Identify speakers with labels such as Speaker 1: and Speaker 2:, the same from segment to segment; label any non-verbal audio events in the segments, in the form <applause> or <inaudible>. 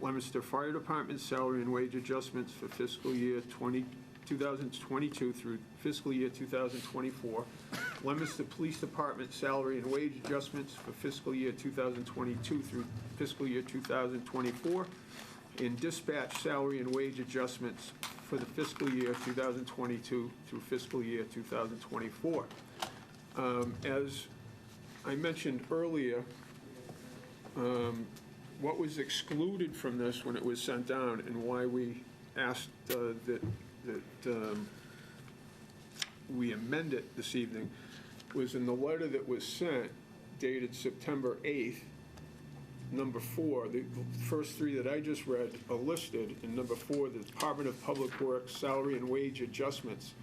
Speaker 1: Leominster Fire Department salary and wage adjustments for fiscal year 20 2022 through fiscal year 2024. Leominster Police Department salary and wage adjustments for fiscal year 2022 through fiscal year 2024. And dispatch salary and wage adjustments for the fiscal year 2022 through fiscal year 2024. Um, As I mentioned earlier, um, what was excluded from this when it was sent down and why we asked uh, that, that um, we amend it this evening was in the letter that was sent dated September 8th, number four, the first three that I just read are listed, and number four, the Department of Public Works salary and wage adjustments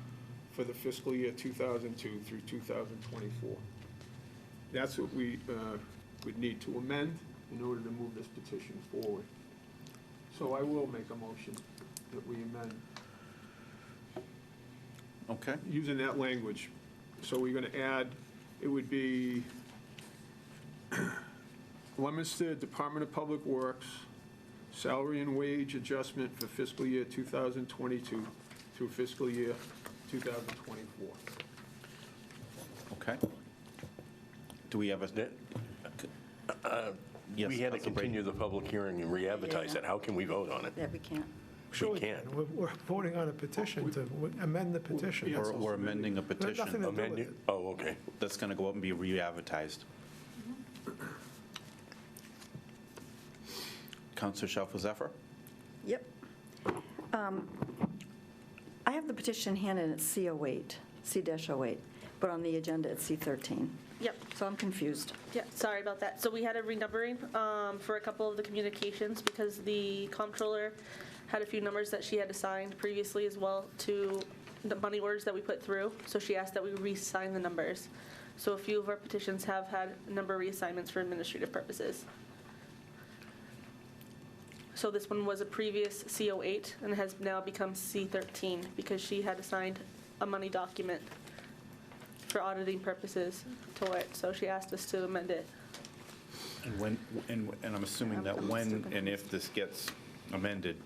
Speaker 1: for the fiscal year 2002 through 2024. That's what we uh, would need to amend in order to move this petition forward. So I will make a motion that we amend,
Speaker 2: Okay,
Speaker 1: using that language. So we're going to add, it would be <clears throat> Leominster Department of Public Works, salary and wage adjustment for fiscal year 2022 through fiscal year 2024.
Speaker 2: okay. Do we have a? Yes,
Speaker 3: We had to
Speaker 2: Councilor Brady.
Speaker 3: continue the public hearing and re-advertise it. How can we vote on it?
Speaker 4: that we can't.
Speaker 3: We can't.
Speaker 5: We're- We're voting on a petition to amend the petition.
Speaker 1: Yeah.
Speaker 2: We're we're amending a
Speaker 5: Nothing
Speaker 2: petition
Speaker 5: to-
Speaker 3: Amend it? Oh, okay.
Speaker 2: that's going to go up and be
Speaker 6: <clears throat>
Speaker 2: re-advertised. Counselor Shalfo Zephyr?
Speaker 4: Yep. Um, I have the petition in hand and it's C08, C-08, but on the agenda it's C13.
Speaker 6: Yep,
Speaker 4: So I'm confused.
Speaker 6: yeah, sorry about that. So we had a renumbering um, for a couple of the communications because the comptroller had a few numbers that she had assigned previously as well to the money orders that we put through. So she asked that we reassign the numbers. So a few of our petitions have had number reassignments for administrative purposes. So this one was a previous C08 and has now become C13 because she had assigned a money document for auditing purposes to it, so she asked us to amend it.
Speaker 2: And when, and, and I'm assuming that when and if this gets amended,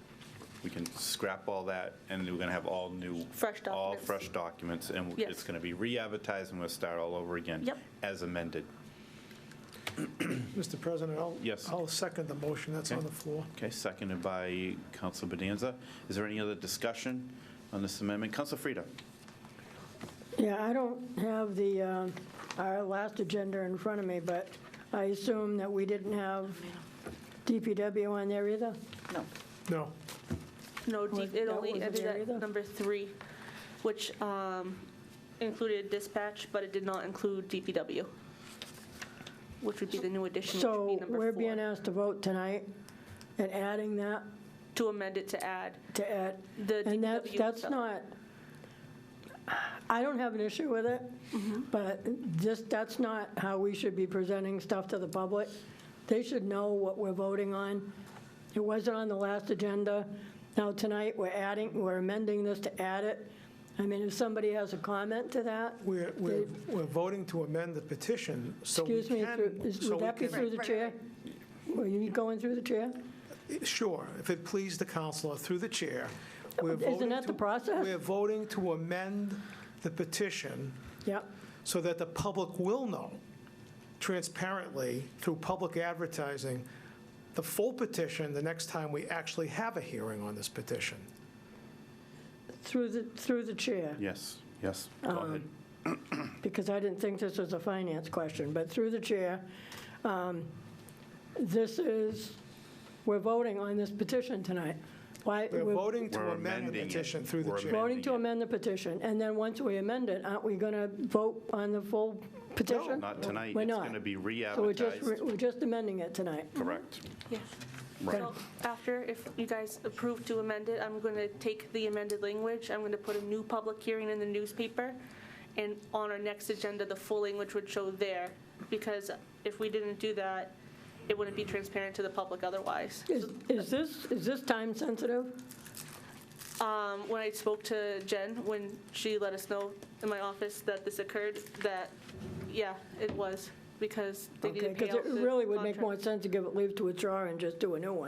Speaker 2: we can scrap all that, and we're going to have all new.
Speaker 6: Fresh
Speaker 2: All
Speaker 6: documents.
Speaker 2: fresh documents, and
Speaker 6: Yes.
Speaker 2: it's going to be re-advertised, and we'll start all over again.
Speaker 6: Yep.
Speaker 2: As amended.
Speaker 5: Mr. President, I'll,
Speaker 2: Yes.
Speaker 5: I'll second the motion that's on
Speaker 2: Okay.
Speaker 5: the floor.
Speaker 2: Okay, seconded by Counsel Bonanza. Is there any other discussion on this amendment? Counsel Frida?
Speaker 7: Yeah, I don't have the, uh, our last agenda in front of me, but I assume that we didn't have DPW on there either?
Speaker 4: No.
Speaker 5: No,
Speaker 6: No, D-
Speaker 7: Was-
Speaker 6: it
Speaker 7: that
Speaker 6: only
Speaker 7: wasn't
Speaker 6: ended
Speaker 7: there
Speaker 6: at
Speaker 7: either?
Speaker 6: number three, which um, included dispatch, but it did not include DPW, which would be the new addition, which would be
Speaker 7: So
Speaker 6: number
Speaker 7: we're being
Speaker 6: four.
Speaker 7: asked to vote tonight and adding that
Speaker 6: To amend it to add
Speaker 7: to add,
Speaker 6: the DPW.
Speaker 7: and that's, that's
Speaker 6: stuff.
Speaker 7: not, I don't have an issue with it, but just, that's not how we should be presenting stuff to the public. They should know what we're voting on. It wasn't on the last agenda. Now, tonight, we're adding, we're amending this to add it. I mean, if somebody has a comment to that,
Speaker 5: we're, we're, we're voting to amend the petition, so we
Speaker 7: excuse me, through-
Speaker 5: can.
Speaker 7: is-
Speaker 5: so
Speaker 7: would
Speaker 5: we
Speaker 7: that be
Speaker 5: can-
Speaker 7: through the chair? Were you going through the chair?
Speaker 5: Sure, if it please the counselor, through the chair. we're
Speaker 7: Isn't
Speaker 5: voting
Speaker 7: that the
Speaker 5: to-
Speaker 7: process?
Speaker 5: We're voting to amend the petition
Speaker 7: Yep,
Speaker 5: so that the public will know transparently through public advertising the full petition the next time we actually have a hearing on this petition.
Speaker 7: through the, through the chair.
Speaker 2: Yes, yes, go ahead.
Speaker 7: because I didn't think this was a finance question, but through the chair, um, this is, we're voting on this petition tonight. Why,
Speaker 5: We're
Speaker 7: we're
Speaker 5: voting to
Speaker 2: We're
Speaker 5: amend the
Speaker 2: amending it.
Speaker 5: petition through the
Speaker 2: We're
Speaker 5: chair.
Speaker 7: voting to amend the petition, and then once we amend it, aren't we going to vote on the full petition?
Speaker 2: Not tonight,
Speaker 7: We're
Speaker 2: it's
Speaker 7: not.
Speaker 2: going to be
Speaker 7: So we're just,
Speaker 2: re-advertised.
Speaker 7: we're just amending it tonight.
Speaker 2: Correct.
Speaker 6: Yeah.
Speaker 2: Right.
Speaker 6: So after, if you guys approve to amend it, I'm going to take the amended language, I'm going to put a new public hearing in the newspaper, and on our next agenda, the full language would show there, because if we didn't do that, it wouldn't be transparent to the public otherwise.
Speaker 7: Is is this, is this time sensitive?
Speaker 6: Um, When I spoke to Jen, when she let us know in my office that this occurred, that, yeah, it was, because they
Speaker 7: Okay,
Speaker 6: didn't pay
Speaker 7: because
Speaker 6: out
Speaker 7: it
Speaker 6: the
Speaker 7: really would make
Speaker 6: contract.
Speaker 7: more sense to give it leave to withdraw and just do a new one.